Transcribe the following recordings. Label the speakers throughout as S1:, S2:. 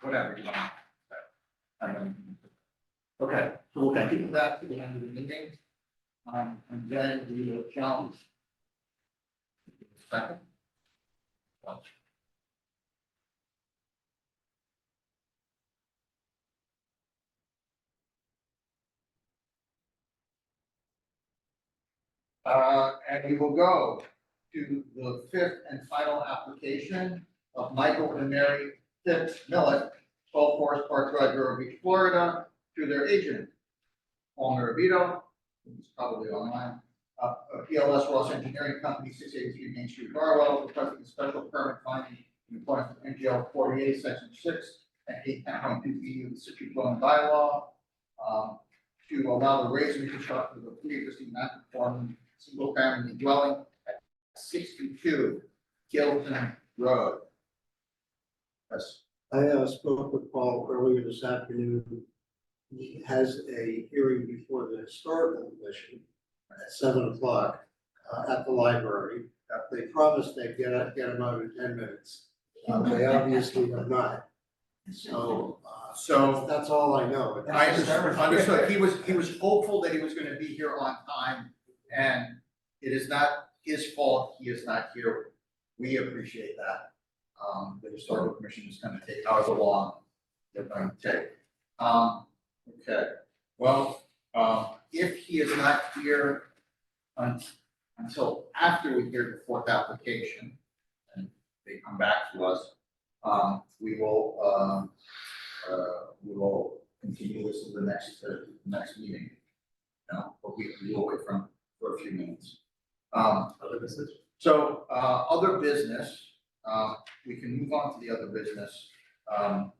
S1: whatever you want. Um, Okay, so we'll continue that to the end of the meeting. Um, and then we will challenge. Second. Uh, and we will go to the fifth and final application of Michael and Mary Fitz Millet, twelve Forest Park Drive, Vero Beach, Florida, to their agent, Palmer Vito, who's probably online, uh, uh, PLS Ross Engineering Company, six eighty-three Main Street, Barwell, requesting a special permit finding in accordance with NGL forty-eight, section six, and eight point two E of the city dwelling bylaw, um, to allow the raise and reconstruct of the pre-existing non-conforming single-family dwelling at sixty-two Gilton Road. Yes.
S2: I uh, spoke with Paul earlier this afternoon. He has a hearing before the historical commission at seven o'clock uh, at the library. Uh, They promised they'd get, get him out in ten minutes. Uh, They obviously have not. So uh,
S1: So
S2: that's all I know.
S1: I understood, understood. he was, he was hopeful that he was gonna be here on time, and it is not his fault, he is not here. We appreciate that. Um, the historical commission is gonna take however long they're gonna take. Um, okay, well, um, if he is not here un- until after we hear the fourth application, and they come back to us, um, we will, um, uh, we will continue this to the next, uh, next meeting. No, but we, we'll wait from, for a few minutes. Um, so, uh, other business, uh, we can move on to the other business, um,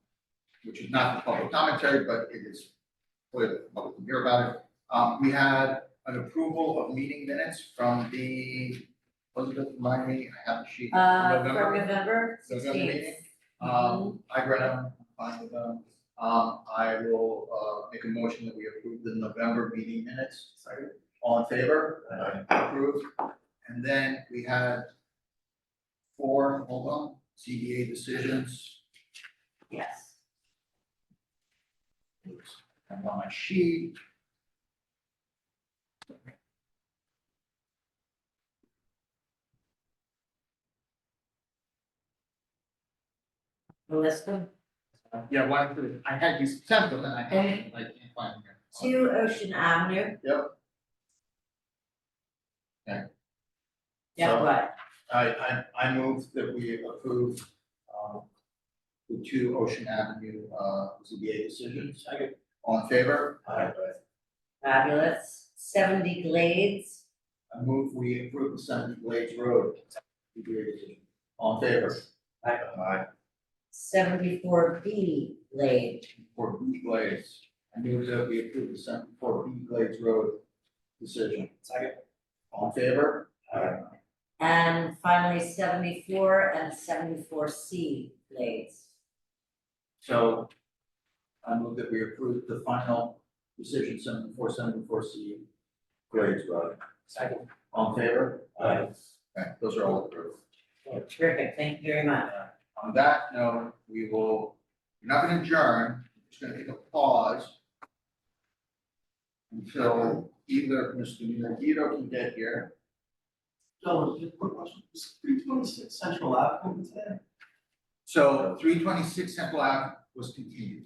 S1: which is not the public commentary, but it is for the public to hear about it. Um, we had an approval of meeting minutes from the, Elizabeth, remind me, I have a sheet from
S3: Uh,
S1: November.
S3: from November
S1: November meeting?
S3: sixteenth.
S1: Um, I read them, fine with them. Um, I will, uh, make a motion that we approve the November meeting minutes. Sorry. All in favor? Approved. And then we had four, hold on, CBA decisions.
S3: Yes.
S1: And on my sheet.
S3: Melissa,
S1: Yeah, one, two. I had you sent them and I can't, I can't find them here.
S3: two Ocean Avenue,
S1: So-
S3: yeah, what?
S1: I, I, I move that we approve, um, the two Ocean Avenue, uh, ZBA decisions. Second. All in favor? Aye.
S3: Fabulous, seventy Glades,
S1: I move we approve the Seventy Glades Road, ZBA decision. All in favor? Aye. Aye.
S3: seventy-four B Glade,
S1: For B Glades, I move that we approve the seventy-four B Glades Road decision. Second. All in favor? Aye.
S3: and finally seventy-four and seventy-four C Glades.
S1: So I move that we approve the final decision seventy-four, seventy-four C Glades Road.
S3: Second.
S1: All in favor? Aye. Okay, those are all approved.
S3: Oh, Terrific, thank you very much.
S1: On that note, we will, we're not gonna adjourn, we're just gonna take a pause. Until either Mr. Miyagito can get here.
S4: Gentlemen, just a quick question, is three twenty-six Central Ave open today?
S1: So three twenty-six Temple Ave was continued.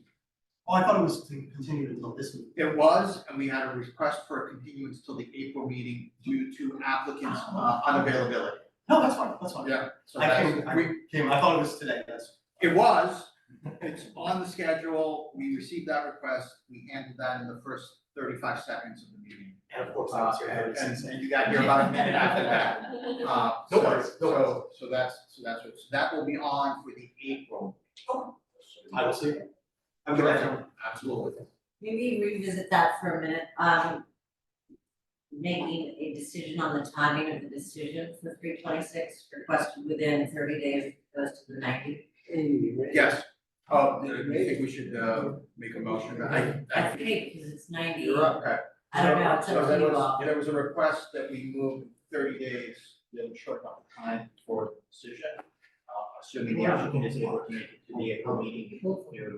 S4: Oh, I thought it was to continue until this week.
S1: It was, and we had a request for a continuance till the April meeting due to applicants' uh, unavailability.
S4: No, that's fine, that's fine.
S1: Yeah, so
S4: I
S1: that's,
S4: came- I
S1: we,
S4: Came, I thought it was today, that's,
S1: it was, it's on the schedule, we received that request, we handled that in the first thirty-five seconds of the meeting.
S4: and of course, I
S1: Uh,
S4: was here, I
S1: and,
S4: was
S1: and-
S4: here.
S1: and you got here about a minute after that. Uh,
S4: No
S1: so-
S4: worries, no worries.
S1: So, so that's, so that's what, so that will be on for the April.
S4: I will see. you. Have a good afternoon.
S1: Absolutely.
S3: Maybe revisit that for a minute, um. Making a decision on the timing of the decision for three twenty-six, requested within thirty days, goes to the ninety.
S1: Yes, uh, I think we should, uh, make a motion, I,
S3: I
S1: I,
S3: think, because it's ninety,
S1: you're up, okay.
S3: I don't know, it's
S1: So
S3: up
S1: there
S3: to you
S1: was-
S3: all.
S1: There was a request that we move thirty days, the short amount of time for decision. Uh, assuming the applicant is able to make it to the April meeting, you know, the